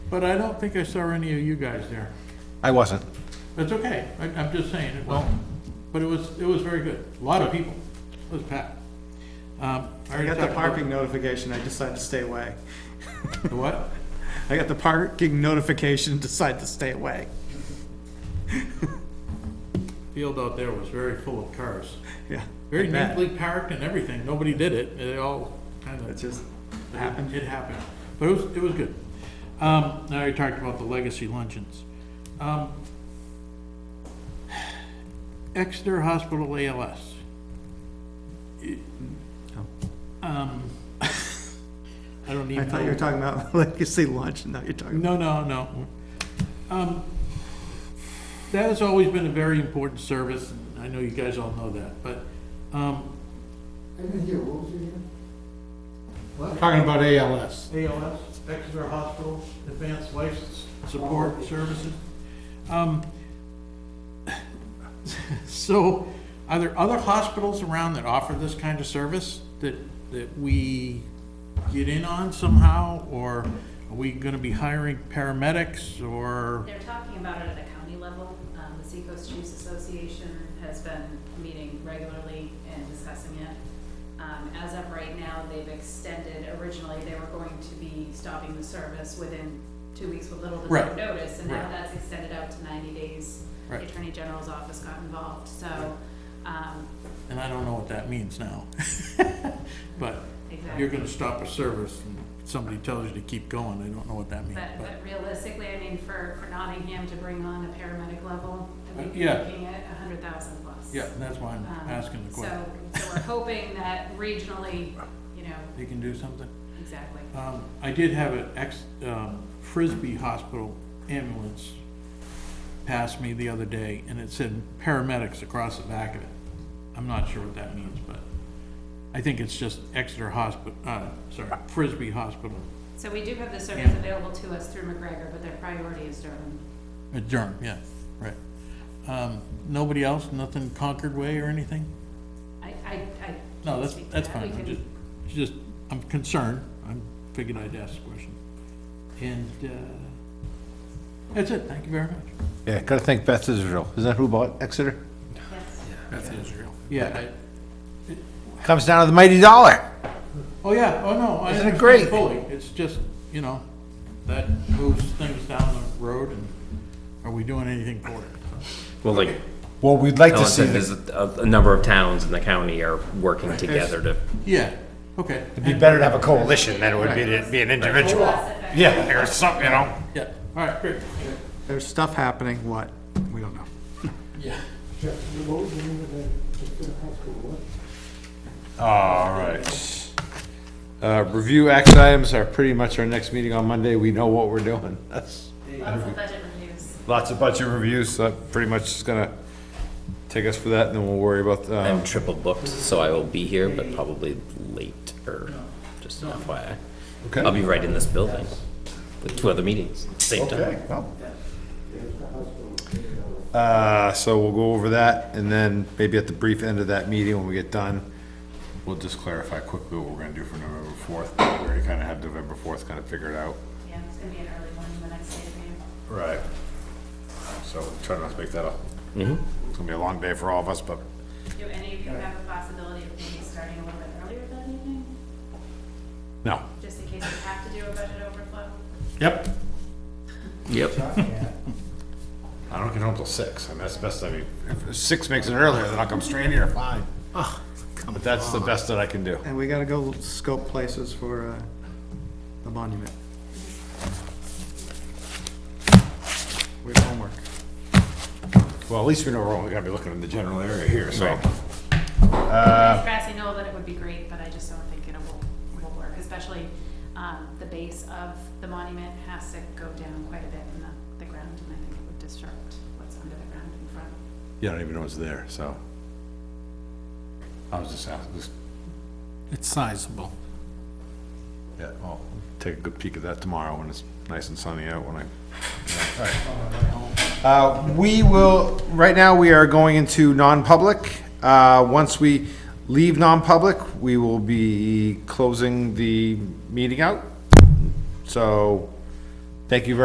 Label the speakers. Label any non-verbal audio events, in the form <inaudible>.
Speaker 1: But I don't think I saw any of you guys there.
Speaker 2: I wasn't.
Speaker 1: That's okay, I, I'm just saying, it well, but it was, it was very good, a lot of people, it was packed. Um,
Speaker 3: I
Speaker 1: already
Speaker 3: got the
Speaker 1: talked about-
Speaker 3: parking notification, I decided to stay away.
Speaker 1: The what?
Speaker 3: I got the parking notification, decided to stay away.
Speaker 1: Field out there was very full of cars,
Speaker 3: Yeah.
Speaker 1: very
Speaker 3: I bet.
Speaker 1: neatly parked and everything, nobody did it, they all kind of.
Speaker 3: It just
Speaker 1: It
Speaker 3: happened.
Speaker 1: It happened, but it was, it was good. Um, now you talked about the legacy luncheons. Um, Exeter Hospital ALS. It-
Speaker 3: Oh.
Speaker 1: Um, I don't
Speaker 3: I
Speaker 1: even know.
Speaker 3: thought you were talking about <laughs> legacy lunch, and now you're talking.
Speaker 1: No, no, no. Um, That has always been a very important service, and I know you guys all know that, but, um,
Speaker 4: I didn't hear, what was your name?
Speaker 5: Talking about ALS.
Speaker 1: ALS, Exeter Hospital, Advanced Life Support Services. Oh. Um, So, are there other hospitals around that offer this kind of service that, that we get in on somehow? Or are we gonna be hiring paramedics or?
Speaker 6: They're talking about it at the county level. Um, The Seacoast Chiefs Association has been meeting regularly and discussing it. Um, As of right now, they've extended, originally, they were going to be stopping the service within two weeks with little to no
Speaker 1: Right.
Speaker 6: notice. And now
Speaker 1: Right.
Speaker 6: that's extended out to ninety days. The
Speaker 1: Right.
Speaker 6: Attorney General's office got involved, so, um,
Speaker 1: And I don't know what that means now. <laughs> But
Speaker 6: exactly.
Speaker 1: you're gonna stop a service and somebody tells you to keep going, I don't know what that means.
Speaker 6: But,
Speaker 1: but-
Speaker 6: but realistically, I mean, for, for Nottingham to bring on a paramedic level, I think you're
Speaker 1: Yeah.
Speaker 6: looking at a hundred thousand plus.
Speaker 1: Yeah, that's why I'm
Speaker 6: Um,
Speaker 1: asking the question.
Speaker 6: So, so we're hoping that regionally, you know,
Speaker 1: They can do something?
Speaker 6: exactly.
Speaker 1: Um, I did have an ex, um, Frisbee Hospital ambulance pass me the other day, and it said paramedics across the back of it. I'm not sure what that means, but I think it's just Exeter Hospital, uh, sorry, Frisbee Hospital,
Speaker 6: So we do have the service
Speaker 1: Yeah.
Speaker 6: available to us through McGregor, but their priority is Durham.
Speaker 1: uh, Durham, yeah, right. Um, nobody else, nothing Concord Way or anything?
Speaker 6: I, I, I.
Speaker 1: No,
Speaker 6: can't
Speaker 1: that's,
Speaker 6: speak to
Speaker 1: that's
Speaker 6: that. We
Speaker 1: fine, I'm
Speaker 6: can-
Speaker 1: just, just, I'm concerned, I figured I'd ask the question. And, uh, that's it, thank you very much.
Speaker 2: Yeah, gotta thank Beth Israel. Isn't that who bought Exeter?
Speaker 6: yes.
Speaker 1: Yeah, I,
Speaker 2: Comes down to the mighty dollar.
Speaker 1: Oh, yeah, oh, no. I
Speaker 2: Isn't it
Speaker 1: understand
Speaker 2: great?
Speaker 1: Fully, it's just, you know, that moves things down the road and are we doing anything for it?
Speaker 7: Well, like
Speaker 2: Well, we'd like to
Speaker 7: Ellen
Speaker 2: see,
Speaker 7: said,
Speaker 2: the-
Speaker 7: there's a, a number of towns in the county are working together to.
Speaker 1: Yeah, okay.
Speaker 2: it'd be better to have a coalition than it would be to be an individual.
Speaker 6: Less effective.
Speaker 2: Yeah, or something, you know?
Speaker 1: Yeah, all right, great.
Speaker 3: There's stuff happening, what? We don't know.
Speaker 1: Yeah.
Speaker 4: Jeff, what was the name of that, just the hospital, what?
Speaker 2: All right. Uh, review action items are pretty much our next meeting on Monday. We know what we're doing. That's
Speaker 6: Lots of budget reviews.
Speaker 2: lots of budget reviews, so that pretty much is gonna take us for that, and then we'll worry about, um,
Speaker 7: I'm triple booked, so I will be here, but probably late or just an FYI.
Speaker 2: okay?
Speaker 7: I'll be right in this building with two other meetings at the same time.
Speaker 2: Okay, well. Uh, so we'll go over that, and then maybe at the brief end of that meeting, when we get done, we'll just clarify quickly what we're gonna do for November fourth. We already kinda have November fourth kinda figured out.
Speaker 6: Yeah, it's gonna be an early one, the next day of the
Speaker 2: Right. So try not to make that up. It's gonna be a long day for all of us, but
Speaker 6: Do any of you have a possibility of maybe starting a little bit earlier that evening,
Speaker 2: no.
Speaker 6: just in case we have to do a budget overflow?
Speaker 2: Yep.
Speaker 7: Yep.
Speaker 2: I don't get home till six, and that's the best, I mean, if six makes it earlier, then I'll come straight here, fine. But that's the best that I can do.
Speaker 3: And we gotta go scope places for, uh, the monument. We have homework.
Speaker 2: Well, at least we know we're only gonna be looking in the general area here, so.
Speaker 6: grassy knoll that it would be great, but I just don't think it will, will work, especially, um, the base of the monument has to go down quite a bit in the, the ground, and I think it would disrupt what's under the ground in front.
Speaker 2: You don't even know it's there, so. I was just asking, just,
Speaker 5: It's sizable.
Speaker 2: yeah, I'll take a good peek at that tomorrow when it's nice and sunny out when I. Uh, we will, right now, we are going into non-public. Uh, once we leave non-public, we will be closing the meeting out. So, thank you very.